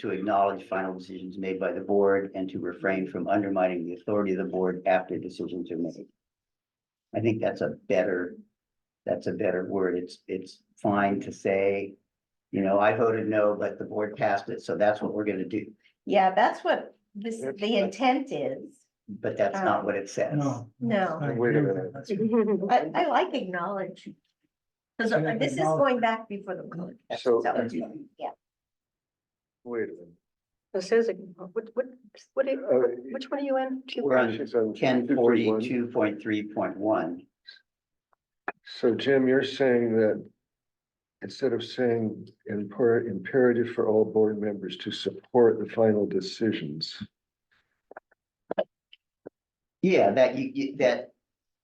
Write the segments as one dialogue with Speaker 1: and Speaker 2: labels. Speaker 1: to acknowledge final decisions made by the board and to refrain from undermining the authority of the board after decisions are made. I think that's a better, that's a better word. It's, it's fine to say, you know, I voted no, but the board passed it, so that's what we're gonna do.
Speaker 2: Yeah, that's what this,
Speaker 3: That's
Speaker 2: the
Speaker 3: right.
Speaker 2: intent is.
Speaker 1: But that's not what it says.
Speaker 4: No.
Speaker 2: No.
Speaker 4: I
Speaker 3: Wait a
Speaker 4: agree with
Speaker 3: minute.
Speaker 4: that. That's-
Speaker 2: I, I like acknowledge. Cause
Speaker 4: I like
Speaker 2: this is
Speaker 4: acknowledge.
Speaker 2: going back before the code.
Speaker 3: So,
Speaker 2: So,
Speaker 1: That's-
Speaker 2: yeah,
Speaker 3: wait a minute.
Speaker 5: It says, it- what, what, what, do you-
Speaker 3: Uh,
Speaker 5: which one are you in? Two-
Speaker 3: we're on-
Speaker 1: on
Speaker 3: she's on
Speaker 1: Ten
Speaker 3: 231.
Speaker 1: forty-two point three point one.
Speaker 3: So Jim, you're saying that instead of saying imper- imperative for all board members to support the final decisions.
Speaker 1: Yeah, that you, you, that.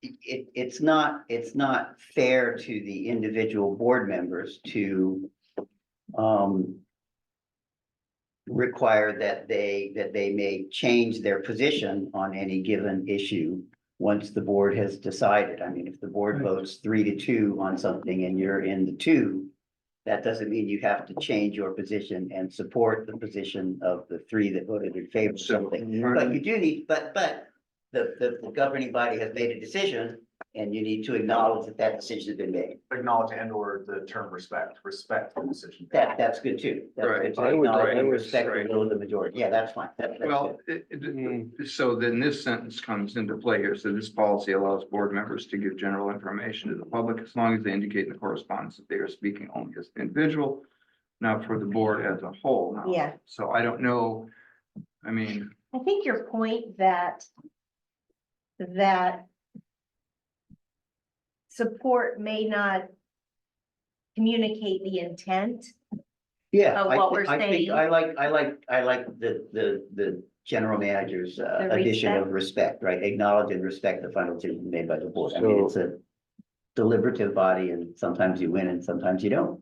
Speaker 1: It, it's not, it's not fair to the individual board members to. Um. Require that they, that they may change their position on any given issue. Once the board has decided, I mean, if the board
Speaker 4: Right.
Speaker 1: votes three to two on something and you're in the two. That doesn't mean you have to change your position and support the position of the three that voted in favor of something. But you do need, but, but the, the, the governing body has made a decision and you need to acknowledge that that decision has been made.
Speaker 6: acknowledge and or the term respect, respect the decision.
Speaker 1: That, that's good too. That's good
Speaker 7: Right.
Speaker 1: to
Speaker 3: I would-
Speaker 1: acknowledge
Speaker 3: I
Speaker 1: and
Speaker 3: would-
Speaker 1: Respect the
Speaker 7: right.
Speaker 1: will of the majority. Yeah, that's fine. That- that's
Speaker 7: Well,
Speaker 1: good.
Speaker 7: it, it, so then this sentence comes into play here. So this policy allows board members to give general information to the public as long as they indicate in the correspondence that they are speaking only as an individual, not for the board as a whole. Now,
Speaker 2: Yeah.
Speaker 7: So I don't know, I mean,
Speaker 2: I think your point that. That. Support may not. Communicate the intent.
Speaker 1: Yeah.
Speaker 2: of
Speaker 1: I
Speaker 2: what
Speaker 1: thi-
Speaker 2: we're
Speaker 1: I think
Speaker 2: saying.
Speaker 1: I like, I like, I like the, the, the general manager's uh,
Speaker 2: The
Speaker 1: addition of respect, right? Acknowledge and respect the final decision made by the board. I mean,
Speaker 3: So-
Speaker 1: it's a deliberative body and sometimes you win and sometimes you don't.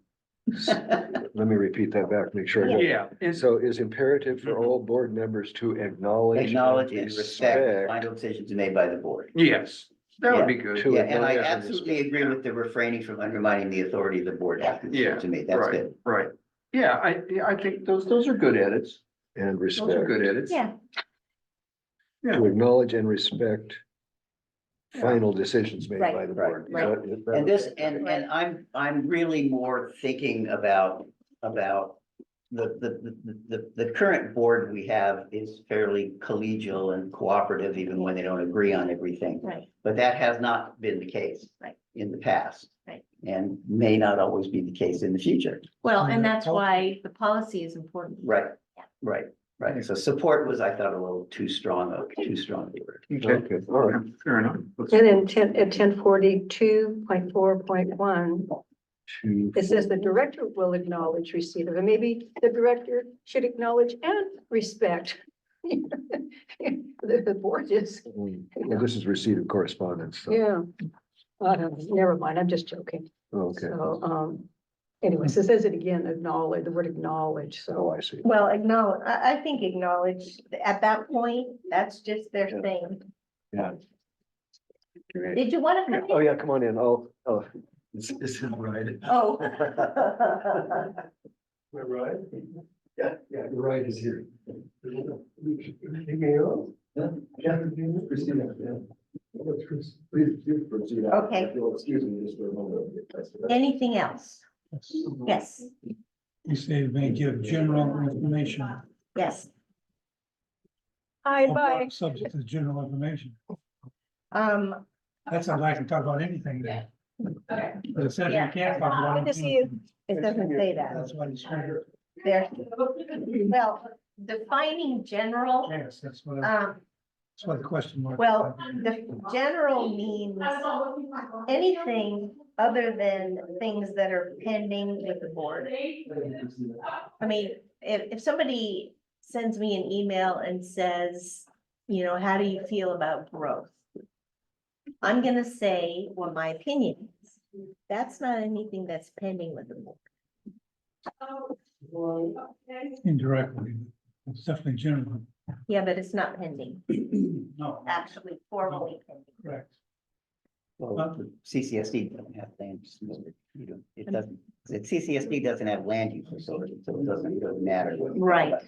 Speaker 3: Let me repeat that back, make sure. I got it.
Speaker 7: yeah, it's,
Speaker 3: So is imperative for all board members to acknowledge.
Speaker 1: Mm-hmm. Acknowledge and respect the final decisions made by the board.
Speaker 7: yes, that would be good.
Speaker 3: To
Speaker 1: Yeah, and I
Speaker 3: acknowledge and
Speaker 1: absolutely agree with the refraining from undermining the authority of the board after the
Speaker 7: Yeah,
Speaker 1: to me, that's
Speaker 7: Right,
Speaker 1: good.
Speaker 7: right. Yeah, I, yeah, I think those, those are good edits.
Speaker 3: And
Speaker 7: Those are
Speaker 3: respect,
Speaker 7: good edits.
Speaker 2: Yeah,
Speaker 3: to acknowledge and respect final decisions made
Speaker 2: Right,
Speaker 3: by the
Speaker 1: right,
Speaker 3: board.
Speaker 2: right.
Speaker 3: That- that-
Speaker 1: And this, and, and I'm, I'm really more thinking about, about the, the, the, the, the current board we have is fairly collegial and cooperative, even when they don't agree on everything.
Speaker 2: right,
Speaker 1: But that has not been the case.
Speaker 2: Right.
Speaker 1: In the past.
Speaker 2: Right.
Speaker 1: And may not always be the case in the future.
Speaker 2: well,
Speaker 4: Yeah,
Speaker 2: and that's
Speaker 4: policy.
Speaker 2: why the policy is important.
Speaker 1: Right,
Speaker 2: Yeah.
Speaker 1: right, right. So support was, I thought, a little too strong, a too strong a word.
Speaker 7: Okay,
Speaker 3: Okay, all right.
Speaker 7: fair enough. Let's-
Speaker 5: And in ten, at ten forty-two point four point one,
Speaker 3: Two,
Speaker 5: it says the director will acknowledge receipt of, it. maybe the director should acknowledge and respect. The, the board is,
Speaker 3: mm, well, this is receipt of correspondence, so,
Speaker 5: yeah. I don't, never mind, I'm just joking.
Speaker 3: okay.
Speaker 5: So, um, anyways, it says it again, acknowledge, the word acknowledge, so.
Speaker 3: Oh, I see.
Speaker 2: Well, acknowledge, I, I think acknowledge, at that point, that's just their
Speaker 3: Yeah.
Speaker 2: thing.
Speaker 3: Yeah.
Speaker 2: Did you wanna?
Speaker 3: Yeah,
Speaker 2: come
Speaker 3: Oh,
Speaker 2: in?
Speaker 3: yeah, come on in. I'll, I'll-
Speaker 4: This this isn't right.
Speaker 2: Oh.
Speaker 4: Am I right? Yeah, yeah, the right is here. Anything else? Yeah, Christina, yeah. What's Chris? Please, please proceed.
Speaker 2: Okay.
Speaker 4: If you'll Excuse me just for a moment.
Speaker 2: Anything else? Yes,
Speaker 8: You say may give general information.
Speaker 2: yes.
Speaker 5: Hi, bye.
Speaker 8: Subject is general information.
Speaker 2: Um,
Speaker 8: That's how I can talk about anything there. But it says you can't talk about.
Speaker 5: Good to see you.
Speaker 2: it doesn't say that.
Speaker 8: That's what it's for.
Speaker 2: There, well, defining general,
Speaker 8: Yes, that's what, that's
Speaker 2: um,
Speaker 8: what the question mark.
Speaker 2: well, the general means anything other than things that are pending with the board. I mean, if, if somebody sends me an email and says, you know, how do you feel about growth? I'm gonna say what my opinion is. That's not anything that's pending with the board.
Speaker 8: Indirectly, it's definitely general.
Speaker 2: Yeah, but it's not pending,
Speaker 8: No.
Speaker 2: actually formally pending.
Speaker 8: Correct.
Speaker 1: Well, CCSD doesn't have land, use, you know, it doesn't, CCSD doesn't have land use authority, so it doesn't really matter. what-
Speaker 2: Right.